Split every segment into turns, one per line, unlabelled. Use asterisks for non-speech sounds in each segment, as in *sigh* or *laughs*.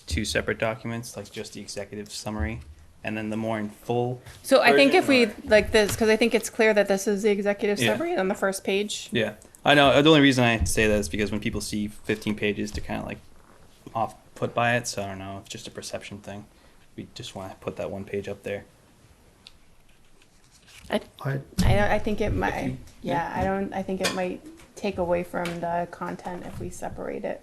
two separate documents, like just the executive summary, and then the more in full.
So I think if we,
version, or-
like this, because I think it's clear that this is the executive
Yeah.
summary on the first page.
Yeah, I know. The only reason I say that is because when people see 15 pages, they're kind of like off put by it. So I don't know. It's just a perception thing. We just want to put that one page up there.
I, I,
I,
don't- I think it
If you-
might, yeah,
yeah.
I don't, I think it might take away from the content if we separate it.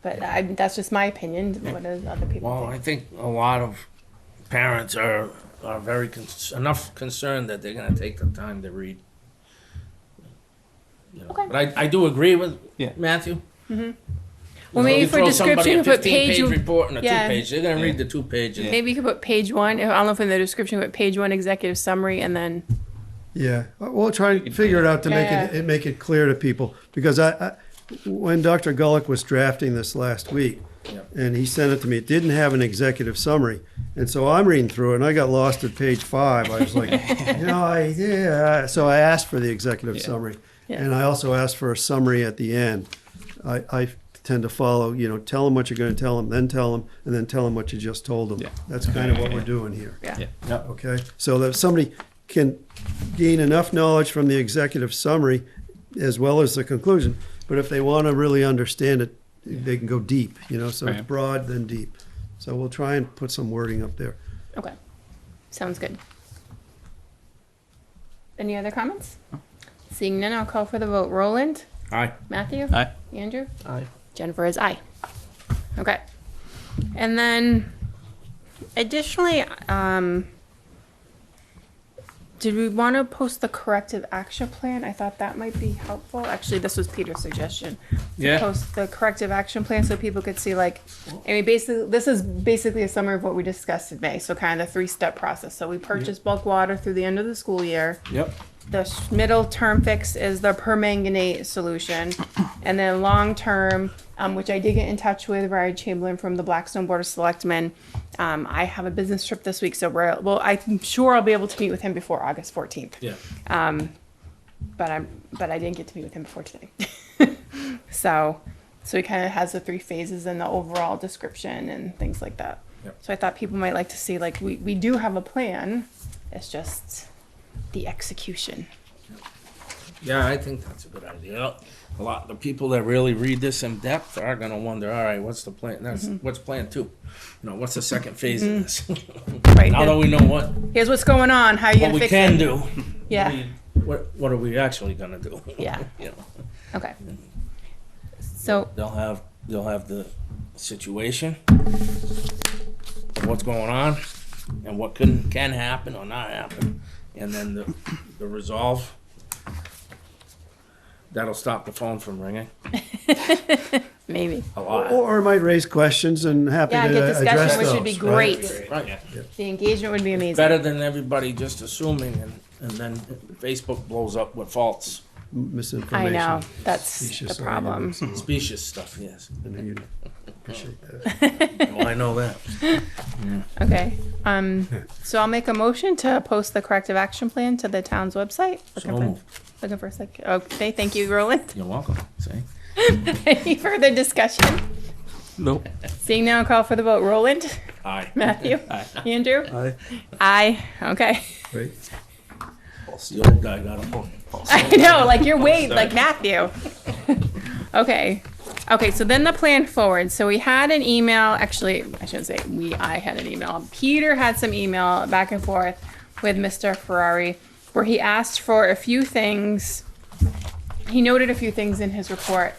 But I, that's just my opinion, what does other
well,
people
I
think?
think a lot of parents are, are very, cons- enough concerned that they're gonna take the time to read. You know,
Okay. Mm-hmm.
But I, I do agree with
Yeah.
Matthew.
Well,
You know,
maybe
you
for
throw
description,
somebody a
you put
15
page,
page
you-
Report and a two
Yeah.
page, they're gonna
Yeah.
read the two pages.
maybe you could put page one, I don't know if in the description, but page one executive summary and then,
Yeah, Uh, we'll try to figure it out to make it,
Yeah.
it- make it clear to people, because I, I, when Dr. Gulick was drafting this last week,
Yeah.
and he sent it to me, it didn't have an executive summary, and so I'm reading through it, and I got lost at page five, I was like, you know, I, yeah, so I asked for the executive
Yeah.
summary,
Yeah.
and I also asked for a summary at the end. I, I tend to follow, you know, tell them what you're gonna tell them, then tell them, and then tell them what you just told them.
Yeah.
That's kind of what we're doing here.
yeah.
Yeah.
Okay, so that somebody can gain enough knowledge from the executive summary as well as the conclusion, but if they want to really understand it, they can go deep, you know, so it's
Right.
broad then deep. So we'll try and put some wording up there.
Okay, sounds good. Any other comments? Seeing none, I'll call for the vote. Roland?
Aye.
Matthew?
Aye.
Andrew?
Aye.
Jennifer is aye. Okay. And then additionally, um, did we want to post the corrective action plan? I thought that might be helpful. Actually, this was Peter's suggestion. to
Yeah.
Post the corrective action plan so people could see like, I mean, basically, this is basically a summary of what we discussed today. So kind of the three-step process. So we purchase bulk water through the end of the school year
Yep.
the sh- middle term fix is the permanganate
*clears throat*
solution. And then long term, um, which I did get in touch with Ryan Chamberlain from the Blackstone Board of Selectmen. Um, I have a business trip this week, so we're, well, I'm sure I'll be able to meet with him before August 14th.
Yeah.
But I'm, but I didn't get to meet with him before today. *laughs* so, so he kind of has the three phases and the overall description and things like that.
Yep.
So I thought people might like to see, like, we, we do have a plan. It's just the execution.
Yeah, I think that's a good idea. A lot of the people that really read this in depth are gonna wonder, all right, what's the plan? That's,
Mm-hmm.
what's plan two? You know, what's the second phase of this?
Mm-hmm.
*laughs*
Right.
Now that we know what,
here's what's going on. How are you
what
gonna
we
fix
can
it?
do,
Yeah.
what, what are we actually gonna do?
Yeah.
*laughs* You know,
Okay. So
they'll have, they'll have the situation, what's going on, and what can, can happen or not happen, and then the, the resolve. That'll stop the phone from ringing
maybe.
a
Or,
lot.
or it might raise questions and happy
Yeah,
to
get
address
discussion, which
those.
would be
right?
great.
Right, yeah.
The engagement would be amazing.
better than everybody just assuming and, and then Facebook blows up with false
I
Misinformation.
know. That's the
Specious
problem.
arguments, and-
specious stuff, yes.
and you'd appreciate that.
Well, I know that.
Okay. Um, so I'll make a motion to post the corrective action plan to the town's website. Looking
So
for,
moved.
looking for a sec. Okay. Thank you, Roland. *laughs*
You're welcome. See?
Any further discussion?
Nope.
Seeing now, call for the vote. Roland, *laughs*
Aye. *laughs*
Matthew,
Aye.
Andrew,
Aye,
*laughs* aye. Okay.
great.
The old guy got a point.
*laughs* I know, like you're weighed like Matthew. *laughs* okay. Okay, so then the plan forward. So we had an email, actually, I shouldn't say we, I had an email. Peter had some email back and forth with Mr. Ferrari where he asked for a few things. He noted a few things in his report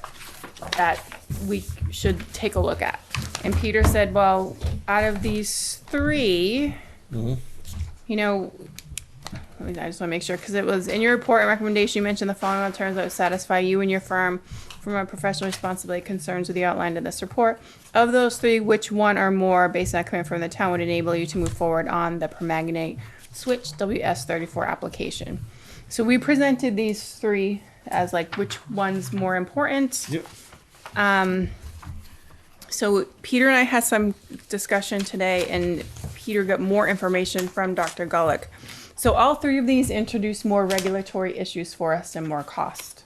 that we should take a look at. And Peter said, well, out of these 3 you know, I mean, I just want to make sure because it was in your report and recommendation. You mentioned the following alternatives that would satisfy you and your firm from a professional responsibility concerns with the outlined in this report. Of those three, which one or more, based on a commitment from the town, would enable you to move forward on the permanganate switch WS34 application? So we presented these three as like which one's more important.
Yep.
So Peter and I had some discussion today, and Peter got more information from Dr. Gulick. So all three of these introduce more regulatory issues for us and more cost.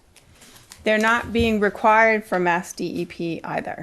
They're not being required from Mass DEP E either.